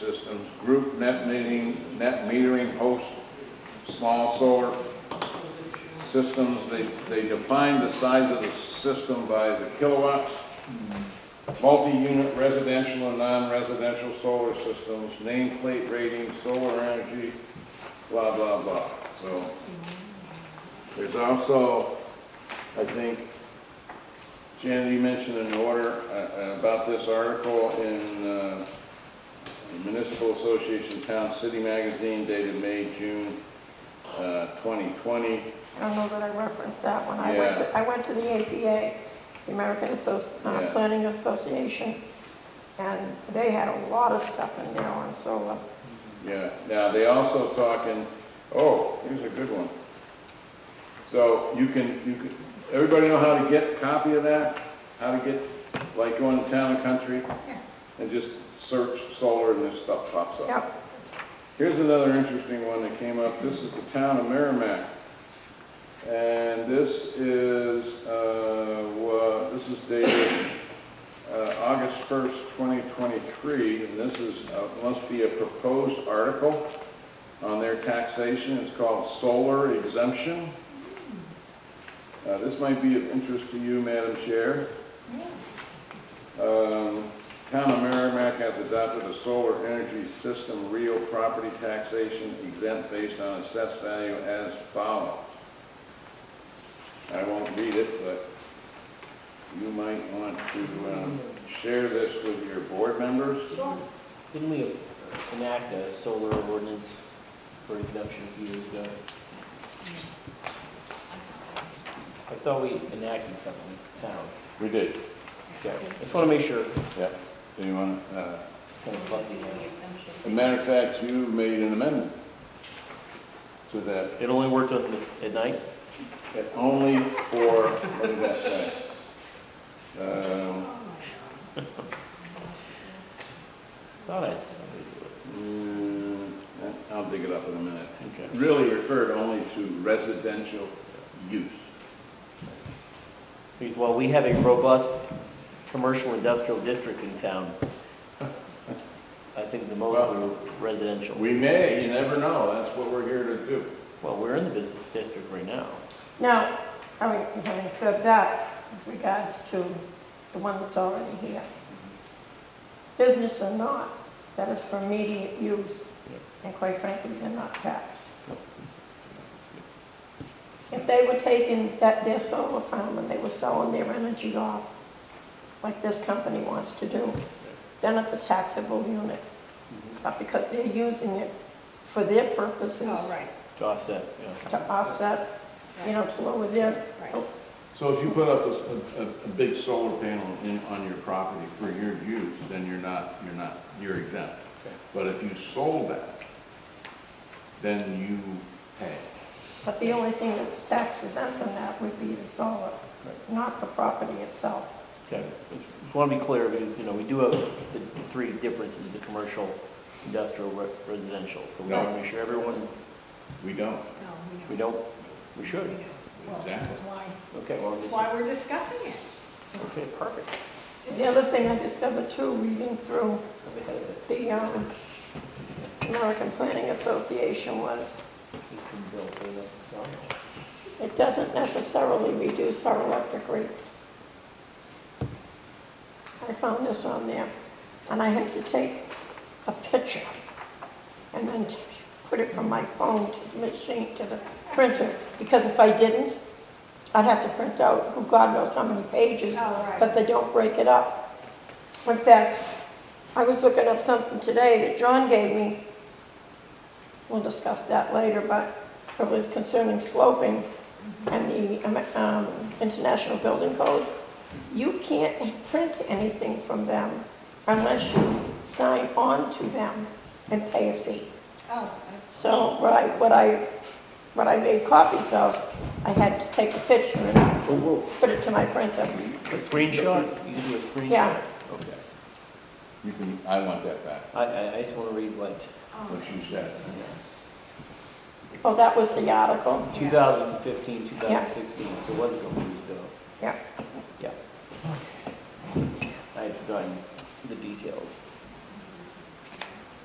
systems, group net metering, net metering host, small solar systems. They, they define the size of the system by the kilowatts. Multi-unit residential and non-residential solar systems, nameplate rating, solar energy, blah, blah, blah. So there's also, I think, Janet, you mentioned an order uh, uh, about this article in uh, Municipal Association Town City Magazine dated May, June uh, 2020. I don't know that I referenced that one. I went, Yeah. to- I went to the APA, the American Associ, uh, Yeah. Planning Association, and they had a lot of stuff in there on solar. Yeah, now they also talking, oh, here's a good one. So you can, you can, everybody know how to get a copy of that? How to get, like going to town and country? And just search solar and this stuff pops up. Yep, Here's another interesting one that came up. This is the town of Merrimack. And this is, uh, wa- this is dated, uh, August first, twenty twenty-three. And this is, uh, must be a proposed article on their taxation. It's called solar exemption. Uh, this might be of interest to you, Madam Chair. Um, Town of Merrimack has adopted a solar energy system real property taxation exempt based on assessed value as follows. I won't read it, but you might want to, um, share this with your board members. Sure. Didn't we enact a solar ordinance for exemption a few years ago? I thought we enacted something in town. We did, Okay, just want to make sure. yeah. Do you want, uh, Kind of fuzzy on it. as a matter of fact, you made an amendment to that It only worked on the- at night? But only for, what did that say? Um, Thought I saw it. mm, I'll dig it up in a minute. Okay. Really referred only to residential use. Because while we have a robust commercial industrial district in town, I think the most are residential. We may, you never know, that's what we're here to do. Well, we're in the business district right now. now, I mean, having said that, with regards to the one that's already here. Business or not, that is for immediate use, and quite frankly, they're not taxed. If they were taking that, their solar farm and they were selling their energy off, like this company wants to do, then it's a taxable unit. Mm-hmm. But because they're using it for their Oh, purposes, right, To offset, yeah. to offset, you know, to lower their, right. So if you put up a, a, a big solar panel in, on your property for your use, then you're not, you're not, you're exempt. Okay. But if you sold that, then you pay. but the only thing that's tax exempt from that would be the solar, not the property itself. Okay, just want to be clear, because, you know, we do have the the three differences, the commercial, industrial, re- residential. So we want to make sure everyone, We don't. No, we we know. don't, we should. We know. Well, that's why, Okay, well, that's this- why we're discussing it. okay, perfect. The other thing I discovered too, reading through I'm ahead of it. the um, American Planning Association was, It's been built, but it's not- it doesn't necessarily reduce our electric rates. I found this on there, and I had to take a picture and then t- put it from my phone to the machine, to the printer, because if I didn't, I'd have to print out, who God knows how many pages, Oh, right. because they don't break it up. In fact, I was looking up something today that John gave me, we'll discuss that later, but it was concerning sloping and the um, um, international building codes. You can't print anything from them unless you sign on to them and pay a fee. Oh. So what I, what I, what I made copies of, I had to take a picture and put it to my printer. A screenshot? You can do a screenshot? Yeah. Okay. You can, I want that back, I, I, I just want to read like, Um, what you said. Oh, that was the article? 2015, 2016, so it was a couple years ago. Yeah. Yeah. I had forgotten the details.